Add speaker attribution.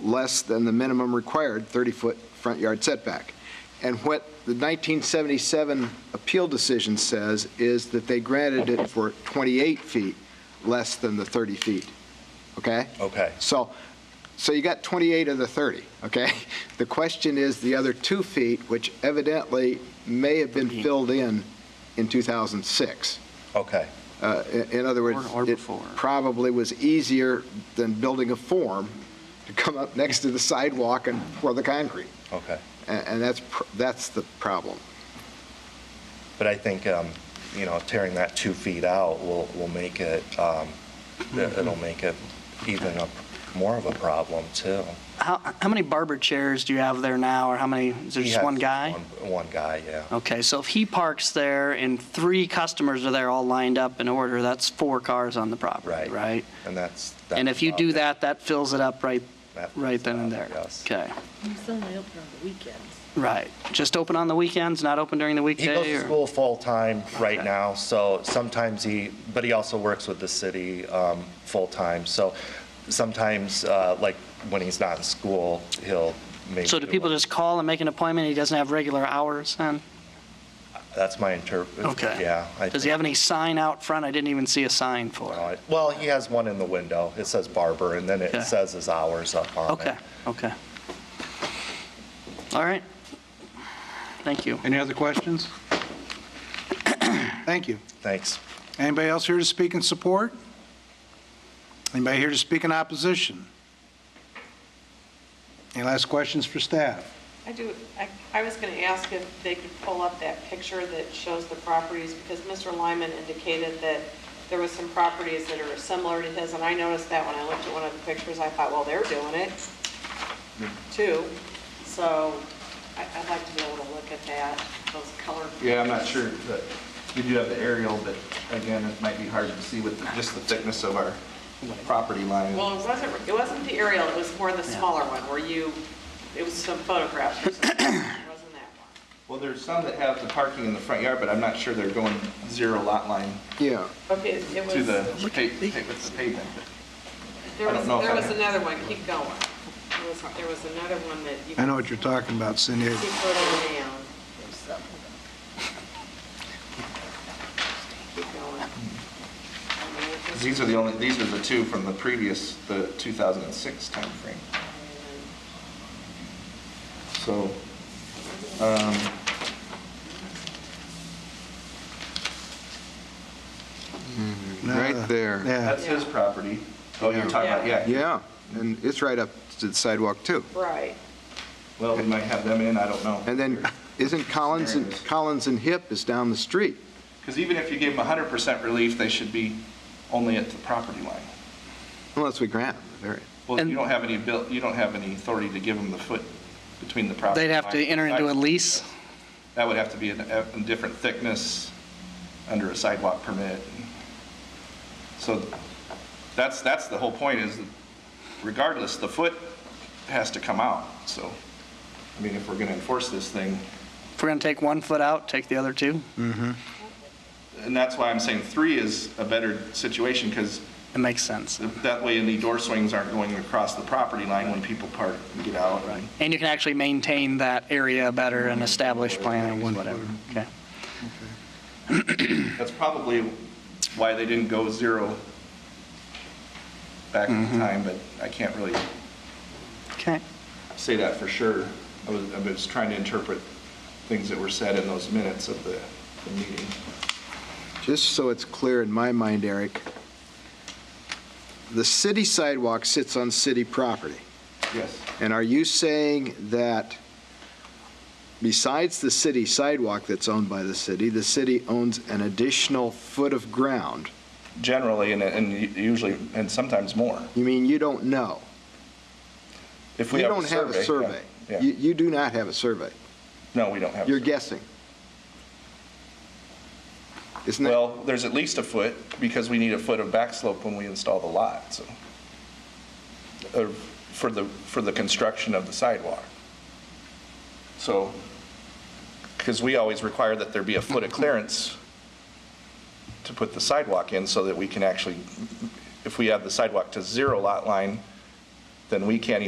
Speaker 1: less than the minimum required 30-foot front yard setback. And what the 1977 appeal decision says is that they granted it for 28 feet less than the 30 feet, okay?
Speaker 2: Okay.
Speaker 1: So, so you got 28 of the 30, okay? The question is the other two feet, which evidently may have been filled in in 2006.
Speaker 2: Okay,
Speaker 1: Uh, i- In other words,
Speaker 3: Or- or
Speaker 1: it
Speaker 3: before.
Speaker 1: probably was easier than building a form to come up next to the sidewalk and pour the concrete.
Speaker 2: okay.
Speaker 1: A- And that's, pr- that's the problem.
Speaker 2: But I think, um, you know, tearing that two feet out will, will make it, um,
Speaker 3: Mm-hmm.
Speaker 2: it- it'll make it even a- more of a problem, too.
Speaker 3: How, how many barber chairs do you have there now, or how many, is there
Speaker 2: He
Speaker 3: just
Speaker 2: has
Speaker 3: one guy?
Speaker 2: one- One guy, yeah.
Speaker 3: Okay, so if he parks there and three customers are there all lined up in order, that's four cars on the property,
Speaker 2: Right.
Speaker 3: right?
Speaker 2: And that's.
Speaker 3: And if you
Speaker 2: that's
Speaker 3: do
Speaker 2: about it.
Speaker 3: that, that fills it up right,
Speaker 2: That-
Speaker 3: right then and there?
Speaker 2: Yes.
Speaker 3: Okay,
Speaker 4: He's only open on the weekends.
Speaker 3: right. Just open on the weekends, not open during the
Speaker 2: He
Speaker 3: weekday?
Speaker 2: goes to
Speaker 3: or-
Speaker 2: school full-time right
Speaker 3: Okay.
Speaker 2: now, so sometimes he, but he also works with the city um, full-time, so sometimes, uh, like, when he's not in school, he'll maybe.
Speaker 3: So do people just call and make an appointment, he doesn't have regular hours then?
Speaker 2: That's my interpret.
Speaker 3: Okay.
Speaker 2: Yeah. I
Speaker 3: Does he
Speaker 2: think-
Speaker 3: have any sign out front? I didn't even see a sign for it.
Speaker 2: Well, he has one in the window. It says barber, and then
Speaker 3: Okay.
Speaker 2: it says his hours up on it.
Speaker 3: Okay, okay. All right. Thank you.
Speaker 5: Any other questions? Thank you.
Speaker 2: Thanks.
Speaker 5: Anybody else here to speak in support? Anybody here to speak in opposition? Any last questions for staff?
Speaker 6: I do, I, I was going to ask if they could pull up that picture that shows the properties, because Mr. Lyman indicated that there was some properties that are similar to his, and I noticed that when I looked at one of the pictures, I thought, well, they're doing it,
Speaker 7: Hmm.
Speaker 6: too. So I, I'd like to be able to look at that, those colored.
Speaker 7: Yeah, I'm not sure, but we do have the aerial, but again, it might be hard to see with just the thickness of our property line.
Speaker 6: Well, it wasn't, it wasn't the aerial, it was more the smaller one, where you, it was some photographs or something, it wasn't that one.
Speaker 7: Well, there's some that have the parking in the front yard, but I'm not sure they're going zero lot line
Speaker 1: Yeah.
Speaker 6: Okay, it was,
Speaker 7: to the
Speaker 6: there
Speaker 7: pa- pa- with the pavement. I don't
Speaker 6: was,
Speaker 7: know if
Speaker 6: there
Speaker 7: I-
Speaker 6: was another one, keep going. There was, there was another one that you.
Speaker 5: I know what you're talking about, Cindy.
Speaker 6: Keep going down. Keep going.
Speaker 7: 'Cause These are the only, these are the two from the previous, the 2006 timeframe. So, um,
Speaker 1: Right there.
Speaker 5: Uh, Yeah.
Speaker 7: that's his property. Oh, you're talking about, yeah.
Speaker 1: Yeah, and it's right up to the sidewalk, too.
Speaker 6: Right.
Speaker 7: Well, we might have them in, I don't know.
Speaker 1: And then, isn't Collins, and Collins and Hip is down the street?
Speaker 7: Because even if you gave them 100% relief, they should be only at the property line.
Speaker 1: Unless we grant them, there-
Speaker 7: Well,
Speaker 3: And-
Speaker 7: you don't have any, abil- you don't have any authority to give them the foot between the property.
Speaker 3: They'd have to
Speaker 7: line.
Speaker 3: enter into a lease?
Speaker 7: That would have to be in a a different thickness under a sidewalk permit. So that's, that's the whole point is that regardless, the foot has to come out. So, I mean, if we're going to enforce this thing,
Speaker 3: If we're going to take one foot out, take the other two?
Speaker 7: and that's why I'm saying three is a better situation because
Speaker 3: It makes sense.
Speaker 7: That way any door swings aren't going across the property line when people park and get out.
Speaker 3: And you can actually maintain that area better and establish planning, whatever. Okay.
Speaker 7: That's probably why they didn't go zero back in
Speaker 1: Mm-hmm.
Speaker 7: time, but I can't really
Speaker 3: Okay.
Speaker 7: say that for sure. I was, I was trying to interpret things that were said in those minutes of the, the meeting.
Speaker 1: Just so it's clear in my mind, Eric, the city sidewalk sits on city property.
Speaker 7: Yes.
Speaker 1: And are you saying that besides the city sidewalk that's owned by the city, the city owns an additional foot of ground?
Speaker 7: Generally, and, and usually, and sometimes more.
Speaker 1: You mean you don't know?
Speaker 7: If we
Speaker 1: You
Speaker 7: have
Speaker 1: don't have a survey.
Speaker 7: yeah,
Speaker 1: You
Speaker 7: yeah.
Speaker 1: you do not have a survey.
Speaker 7: No, we don't have. a
Speaker 1: You're
Speaker 7: survey.
Speaker 1: guessing. Isn't that,
Speaker 7: Well, there's at least a foot, because we need a foot of back slope when we install the lot, so, or for the, for the construction of the sidewalk. So, because we always require that there be a foot of clearance to put the sidewalk in, so that we can actually, if we have the sidewalk to zero lot line, then we can't even